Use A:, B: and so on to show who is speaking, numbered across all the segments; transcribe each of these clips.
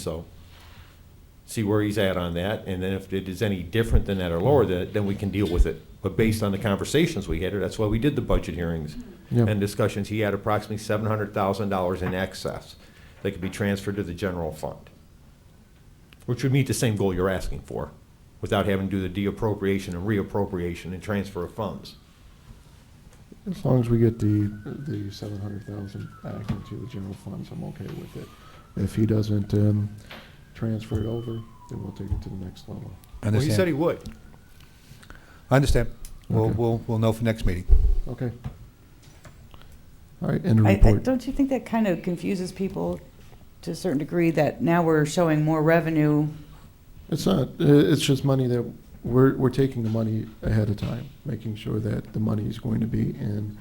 A: So see where he's at on that, and then if it is any different than that or lower, than- then we can deal with it. But based on the conversations we had, that's why we did the budget hearings
B: Yeah.
A: and discussions, he had approximately seven hundred thousand dollars in excess that could be transferred to the general fund, which would meet the same goal you're asking for, without having to do the deappropriation and reappropriation and transfer of funds.
B: As long as we get the, the seven hundred thousand back into the general funds, I'm okay with it. If he doesn't, um, transfer it over, then we'll take it to the next level.
A: Well, he said he
C: Understand.
A: would.
C: I understand. We'll,
B: Okay.
C: we'll, we'll know for next meeting.
B: Okay. All right, end of
D: I- I,
B: report.
D: don't you think that kind of confuses people to a certain degree that now we're showing more revenue?
B: It's not, i- it's just money that, we're, we're taking the money ahead of time, making sure that the money is going to be in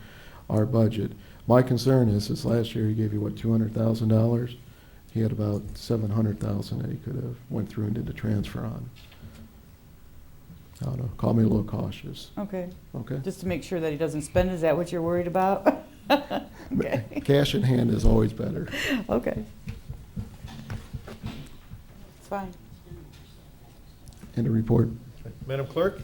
B: our budget. My concern is, is last year he gave you, what, two hundred thousand dollars? He had about seven hundred thousand that he could have went through and did a transfer on. I don't know, call me a little cautious,
D: Okay,
B: okay?
D: just to make sure that he doesn't spend, is that what you're worried about? Okay,
B: Cash in hand is always better.
D: okay. It's fine.
B: End of report.
A: Madam Clerk,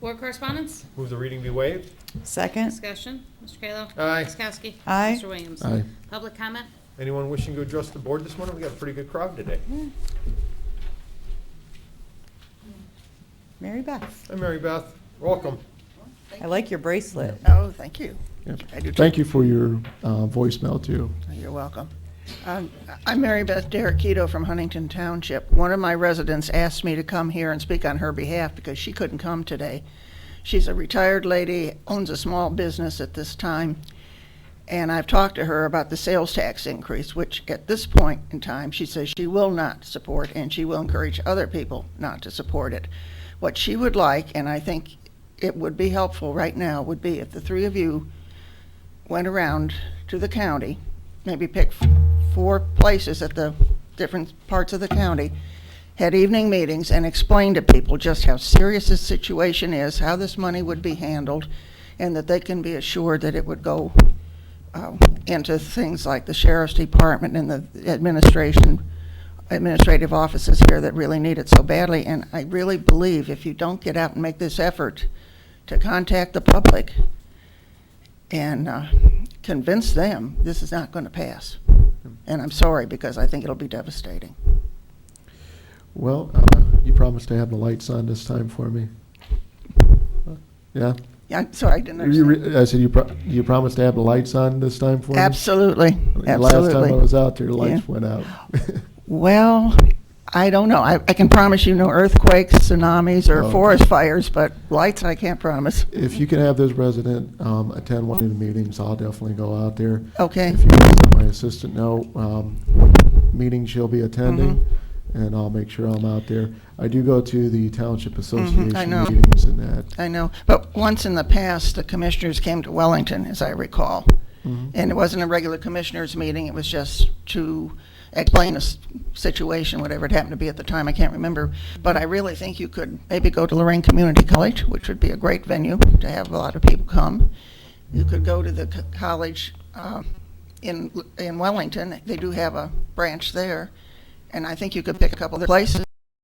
E: Board correspondence?
A: move the reading be waived.
D: Second,
E: Discussion. Mr. Kayla?
A: Aye.
E: Ms. Kowski?
D: Aye.
E: Mr. Williams?
B: Aye.
E: Public comment?
A: Anyone wishing to address the board this morning? We got a pretty good crowd today.
D: Mary Beth,
A: Hi, Mary Beth. Welcome.
D: I like your bracelet.
F: Oh, thank you.
B: Yep.
F: I do too.
B: Thank you for your uh, voicemail too.
F: You're welcome. Um, I'm Mary Beth Derekito from Huntington Township. One of my residents asked me to come here and speak on her behalf because she couldn't come today. She's a retired lady, owns a small business at this time, and I've talked to her about the sales tax increase, which at this point in time, she says she will not support, and she will encourage other people not to support it. What she would like, and I think it would be helpful right now, would be if the three of you went around to the county, maybe picked f- four places at the different parts of the county, had evening meetings and explained to people just how serious this situation is, how this money would be handled, and that they can be assured that it would go um, into things like the sheriff's department and the administration, administrative offices here that really need it so badly. And I really believe if you don't get out and make this effort to contact the public, and uh, convince them this is not going to pass. And I'm sorry, because I think it'll be devastating.
B: Well, uh, you promised to have the lights on this time for me. Yeah?
F: Yeah, I'm sorry, I didn't
B: You
F: understand.
B: re- I said, you pro- you promised to have the lights on this time for me?
F: Absolutely,
B: The Last time I was
F: absolutely.
B: out there, the lights
F: Yeah.
B: went out.
F: Well, I don't know. I I can promise you no earthquakes, tsunamis, or
B: Oh.
F: forest fires, but lights I can't promise.
B: If you can have this resident um, attend one of the meetings, I'll definitely go out there.
F: Okay,
B: If you can let my assistant know um, what meeting she'll be attending,
F: Mm-hmm.
B: and I'll make sure I'm out there. I do go to the Township Association
F: Mm-hmm. know.
B: meetings and that.
F: I know. But once in the past, the commissioners came to Wellington, as I recall.
B: Mhm.
F: And it wasn't a regular commissioners' meeting, it was just to explain a s- situation, whatever it happened to be at the time, I can't remember. But I really think you could maybe go to Lorraine Community College, which would be a great venue to have a lot of people come. You could go to the co- college uh, in, in Wellington, they do have a branch there. And I think you could pick a couple other places